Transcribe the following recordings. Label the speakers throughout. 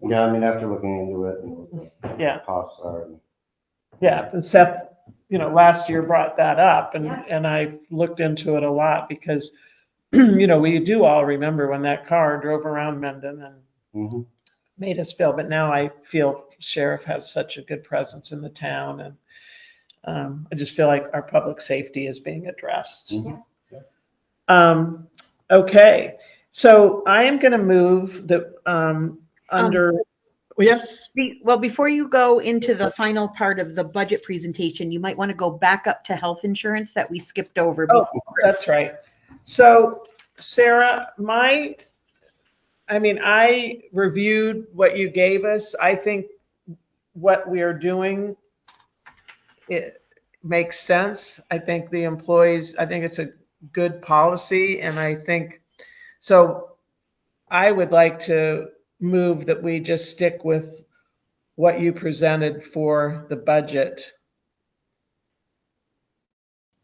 Speaker 1: Yeah, I mean, after looking into it and what the
Speaker 2: Yeah.
Speaker 1: costs are. and-
Speaker 2: Yeah, and Seth, you know, last year brought that up and,
Speaker 3: Yeah.
Speaker 2: and I looked into it a lot because, you know, we do all remember when that car drove around Mendon and
Speaker 1: Mhm.
Speaker 2: made us feel, but now I feel sheriff has such a good presence in the town and um, I just feel like our public safety is being addressed.
Speaker 1: Mhm.
Speaker 2: Um, okay, so I am gonna move the, um, under, yes,
Speaker 3: Be- Well, before you go into the final part of the budget presentation, you might want to go back up to health insurance that we skipped over.
Speaker 2: Oh.
Speaker 3: before.
Speaker 2: That's right. So Sarah, my, I mean, I reviewed what you gave us. I think what we are doing, it makes sense. I think the employees, I think it's a good policy and I think, so I would like to move that we just stick with what you presented for the budget.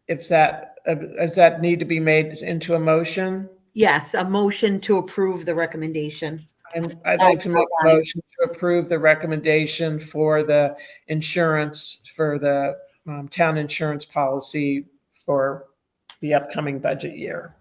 Speaker 2: If that, uh, does that need to be made into a motion?
Speaker 3: Yes, a motion to approve the recommendation.
Speaker 2: I'm- I'd like to make a motion to approve the recommendation for the insurance, for the um, town insurance policy for the upcoming budget year.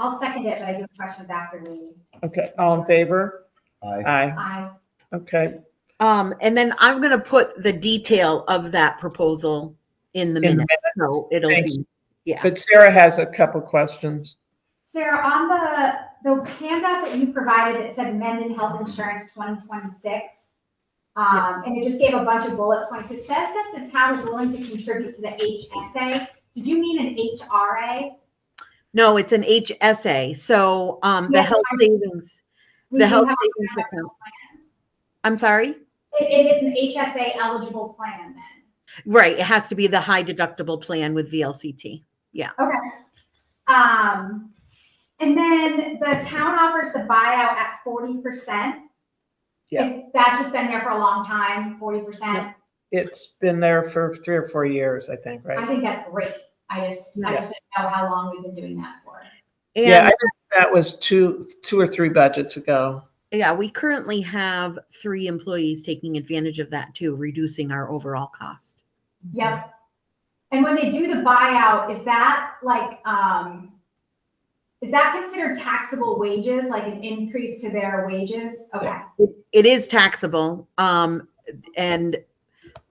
Speaker 4: I'll second it, but I do have questions after the meeting.
Speaker 2: Okay, all in favor?
Speaker 1: I,
Speaker 2: Aye.
Speaker 4: I,
Speaker 2: Okay,
Speaker 3: Um, and then I'm going to put the detail of that proposal in the
Speaker 2: In
Speaker 3: minutes. So it'll
Speaker 2: Thank
Speaker 3: be, yeah.
Speaker 2: but Sarah has a couple questions.
Speaker 4: Sarah, on the, the handout that you provided that said Mendon Health Insurance 2026, um, and it just gave a bunch of bullet points, it says that the town is willing to contribute to the HSA. Did you mean an HRA?
Speaker 3: No, it's an HSA. So, um, the
Speaker 4: Yeah,
Speaker 3: health savings,
Speaker 4: We
Speaker 3: the
Speaker 4: do
Speaker 3: health
Speaker 4: have a
Speaker 3: savings
Speaker 4: plan.
Speaker 3: account. I'm sorry?
Speaker 4: It, it is an HSA eligible plan then.
Speaker 3: Right. It has to be the high deductible plan with VLCT.
Speaker 4: Okay. Um, and then the town offers the buyout at 40%.
Speaker 2: Yeah.
Speaker 4: Is- That's just been there for a long time, 40%.
Speaker 2: It's been there for three or four years, I think,
Speaker 4: I
Speaker 2: right?
Speaker 4: think that's great. I just, I
Speaker 2: Yeah.
Speaker 4: just didn't know how long we've been doing that for.
Speaker 2: Yeah, I
Speaker 3: And
Speaker 2: think that was two, two or three budgets ago.
Speaker 3: yeah, we currently have three employees taking advantage of that too, reducing our overall cost.
Speaker 4: Yep. And when they do the buyout, is that like, um, is that considered taxable wages, like an increase to their wages? Okay.
Speaker 3: It is taxable, um, and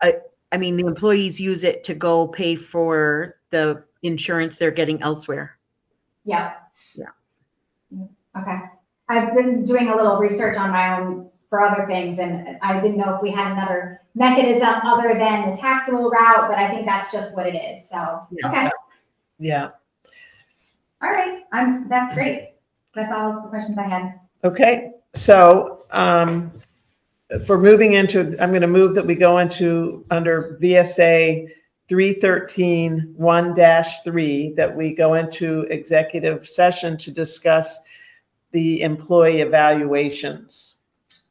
Speaker 3: I, I mean, the employees use it to go pay for the insurance they're getting elsewhere.
Speaker 4: Yep. Mm-hmm.
Speaker 3: Yeah.
Speaker 4: Okay. I've been doing a little research on my own for other things and I didn't know if we had another mechanism other than the taxable route, but I think that's just what it is. So,
Speaker 3: Yeah.
Speaker 4: okay.
Speaker 2: Yeah,
Speaker 4: All right. I'm, that's great. That's all the questions I had.
Speaker 2: okay, so, um, for moving into, I'm gonna move that we go into, under VSA three thirteen one dash three, that we go into executive session to discuss the employee evaluations.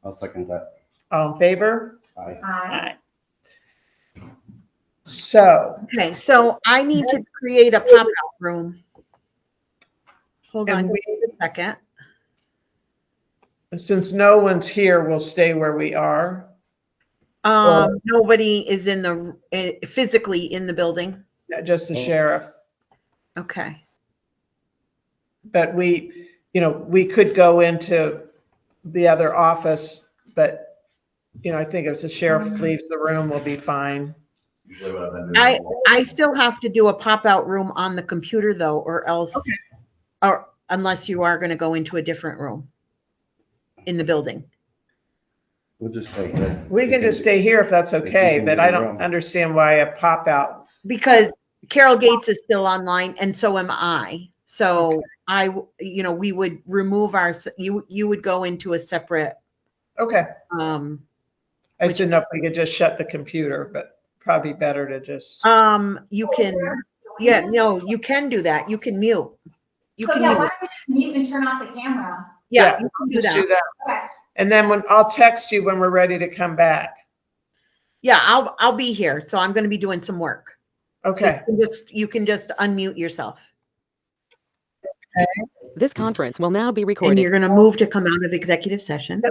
Speaker 1: I'll second that.
Speaker 2: All in favor?
Speaker 1: I,
Speaker 4: Aye.
Speaker 2: So,
Speaker 3: Okay, so I need to create a pop-out room. Hold
Speaker 2: And
Speaker 3: on just a second.
Speaker 2: since no one's here, we'll stay where we are.
Speaker 3: Um, nobody is in the, eh, physically in the building.
Speaker 2: just the sheriff.
Speaker 3: Okay.
Speaker 2: But we, you know, we could go into the other office, but, you know, I think if the sheriff
Speaker 3: Mm-hmm.
Speaker 2: leaves the room, we'll be fine.
Speaker 5: Usually what I've been doing.
Speaker 3: I, I still have to do a pop-out room on the computer though, or else, or unless you are gonna go into a different room in the building.
Speaker 1: we'll just stay here.
Speaker 2: We can just stay here if that's
Speaker 1: you
Speaker 2: okay,
Speaker 1: can
Speaker 2: but
Speaker 1: do
Speaker 2: I
Speaker 1: the
Speaker 2: don't
Speaker 1: room.
Speaker 2: understand why a pop out.
Speaker 3: Because Carol Gates is still online and so am I. So I, w- you know, we would remove our, s- you, you would go into a separate,
Speaker 2: Okay.
Speaker 3: um,
Speaker 2: I just didn't know if we could just shut the computer, but probably better to just,
Speaker 3: um, you
Speaker 4: Oh,
Speaker 3: can, yeah, no, you can do that. You can mute. You
Speaker 4: So
Speaker 3: can,
Speaker 4: yeah, why
Speaker 3: mute.
Speaker 4: don't we just mute and turn off the camera?
Speaker 3: yeah, you can do
Speaker 2: just do
Speaker 3: that.
Speaker 2: that.
Speaker 4: Okay.
Speaker 2: And then when, I'll text you when we're ready to come back.
Speaker 3: Yeah, I'll, I'll be here. So I'm gonna be doing some work. So
Speaker 2: Okay.
Speaker 3: you can Just, you can just unmute yourself.
Speaker 6: This conference will now be recorded.
Speaker 3: And you're going to move to come out of executive session.